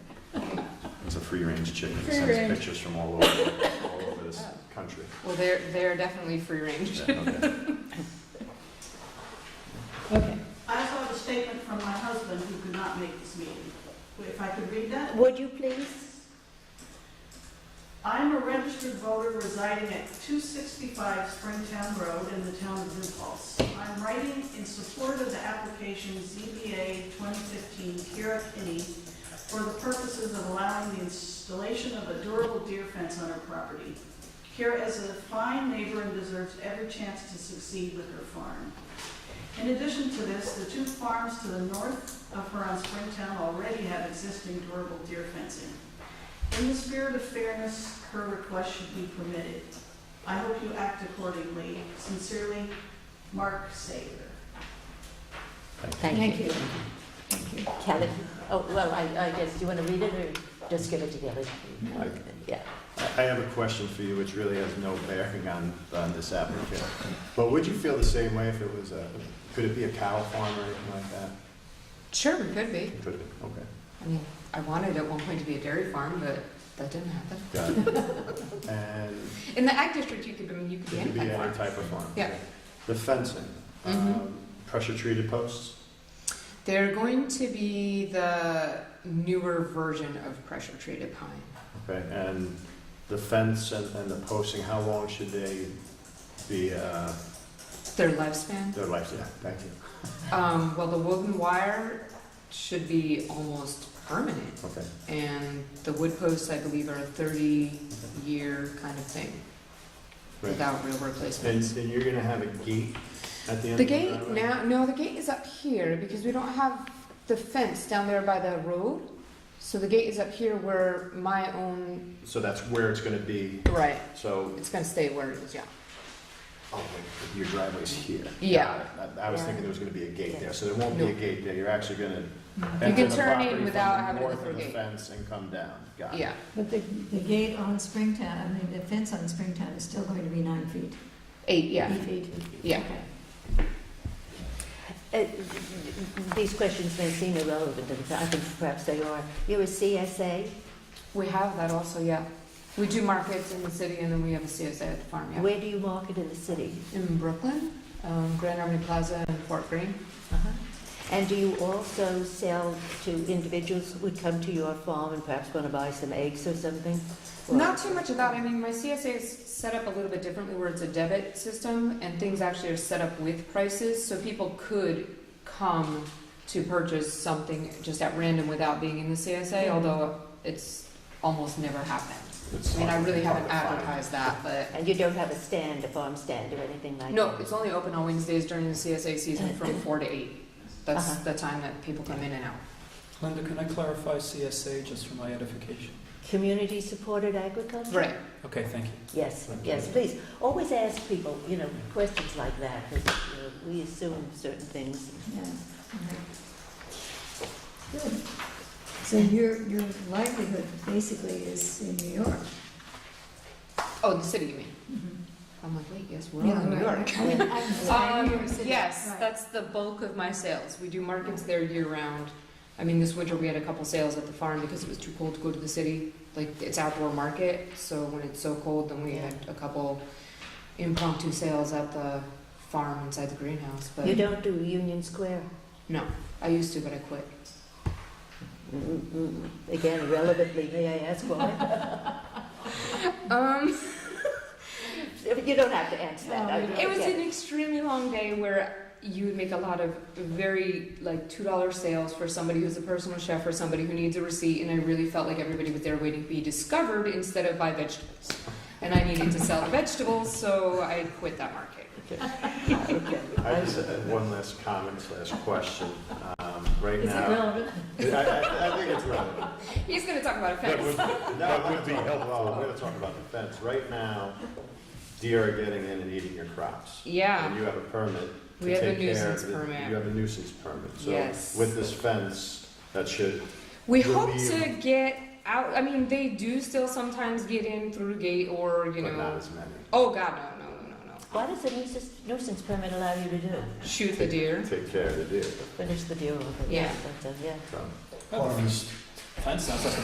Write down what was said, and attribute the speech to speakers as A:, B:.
A: It's a free-range chicken. It
B: Free
A: sends
B: range.
A: pictures from all over, all over this country.
C: Well, they're, they're definitely free range.
A: Yeah, okay.
B: Okay.
D: I saw the statement from my husband who could not make this meeting. If I could read that?
B: Would you please?
D: I am a registered voter residing at 265 Springtown Road in the town of Impulse. I'm writing in support of the application ZBA 2015 Kira Kinney for the purposes of allowing the installation of a durable deer fence on her property. Kira is a fine neighbor and deserves every chance to succeed with her farm. In addition to this, the two farms to the north of her on Springtown already have existing durable deer fencing. In the spirit of fairness, her request should be permitted. I hope you act accordingly. Sincerely, Mark Sager.
B: Thank
E: Thank you.
B: you.
E: Kelly, oh, well, I, I guess, do you want to read it or just give it to Kelly?
A: I-
E: Yeah.
A: I I have a question for you, which really has no bearing on, on this applicant. But would you feel the same way if it was a, could it be a cow farm or anything like that?
C: Sure, it could be.
A: Could it, okay.
C: I mean, I wanted at one point to be a dairy farm, but that didn't happen.
A: Got it. And
C: In the ag district, you could, I mean, you could be
A: it could be
C: any
A: any
C: farm.
A: type of farm.
C: Yeah.
A: The fencing,
C: Mhm.
A: um, pressure-treated posts?
C: They're going to be the newer version of pressure treated pine.
A: Okay, and the fence and, and the posting, how long should they be, uh,
C: Their lifespan,
A: their life, yeah, thank you,
C: um, well, the wooden wire should be almost permanent.
A: okay.
C: And the wood posts, I believe, are a thirty year kind of thing
A: Right.
C: without real
A: And,
C: replacements.
A: and you're gonna have a gate at the end
C: The
A: of the
C: gate
A: driveway?
C: now, no, the gate is up here because we don't have the fence down there by the road. So the gate is up here where my own,
A: So that's where it's gonna be,
C: right,
A: so,
C: it's gonna stay where it is, yeah.
A: oh, wait, your driveway's here.
C: Yeah.
A: Got it. I, I was
E: Yeah.
A: thinking there was gonna be a gate there, so there won't be a
C: Nope. Mm-hmm.
A: gate there, you're actually gonna
C: You
A: enter
C: can
A: the
C: turn
A: property
C: in
A: from
C: without
A: the
C: having to go
A: north
C: through
A: of
C: a
A: the
C: gate.
A: fence and come down, got it.
C: Yeah,
F: But the, the gate on Springtown, I mean, the fence on Springtown is still going to be nine feet.
C: eight, yeah,
F: Eight feet.
C: Yeah.
F: Okay.
E: Uh, These questions may seem irrelevant, and I think perhaps they are. You're a CSA?
C: we have that also, yeah. We do markets in the city and then we have a CSA at the farm, yeah.
E: Where do you market in the city?
C: In Brooklyn, um, Grand Army Plaza and Fort Greene.
F: Uh-huh.
E: And do you also sell to individuals who would come to your farm and perhaps want to buy some eggs or something? Or-
C: Not too much of that. I mean, my CSA is set up a little bit differently where it's a debit system and things actually are set up with prices, so people could come to purchase something just at random without being in the CSA, although it's almost never happened.
A: It's
C: I mean, I
A: hard-
C: really
A: hard
C: haven't
A: to find.
C: advertised that, but,
E: And you don't have a stand, a farm stand or anything like that?
C: no, it's only open on Wednesdays during the CSA season from four to eight. That's the time that people come in and out.
G: Linda, can I clarify CSA just for my edification?
E: Community-supported agriculture?
C: Right.
G: Okay, thank you.
E: Yes,
G: Thank
E: yes,
G: you.
E: please. Always ask people, you know, questions like that, because we assume certain things.
F: Yeah. Okay. Good. So your, your livelihood basically is in New York.
C: Oh, the city, you mean? I'm like, wait, yes, we're all
F: Yeah,
C: in New
F: right.
C: York.
F: I mean, I'm sorry, New
C: Um,
F: York City.
C: yes,
F: Right.
C: that's the bulk of my sales. We do markets there year round. I mean, this winter we had a couple sales at the farm because it was too cold to go to the city. Like, it's outdoor market, so when it's so cold, then we had a couple impromptu sales at the farm inside the greenhouse, but
E: You don't do Union Square?
C: I used to, but I quit.
E: Mm, mm, Again, relevantly, may I ask why?
C: Um,
E: You don't have to answer that. I-
C: it was
E: okay.
C: an extremely long day where you would make a lot of very like two dollar sales for somebody who's a personal chef or somebody who needs a receipt, and I really felt like everybody was there waiting to be discovered instead of buy vegetables, and I needed to sell the vegetables, so I quit that market.
E: Okay.
A: I just had one last comment slash question, um, right
F: Is it
A: now.
F: relevant?
A: I, I, I think it's relevant.
C: He's gonna talk about
A: That
C: offense.
A: would, that would be helpful. We're gonna talk about the fence. Right now, deer are getting in and eating your crops. And
C: Yeah,
A: you have a permit to
C: We have a
A: take care
C: nuisance
A: of it.
C: permit.
A: You have a nuisance permit.
C: Yes.
A: So with this fence, that should,
C: we
A: You'll
C: hope
A: be-
C: to get out. I mean, they do still sometimes get in through gate or you
A: but not
C: know.
A: as many.
C: Oh God, no, no, no, no, no!
E: What does the nuisance, nuisance permit allow you to do?
C: Shoot the deer.
A: Take care of the deer.
E: Finish the deal with it?
C: Yeah.
E: that's it, Yeah.
A: So-
G: Well, the Fence sounds like a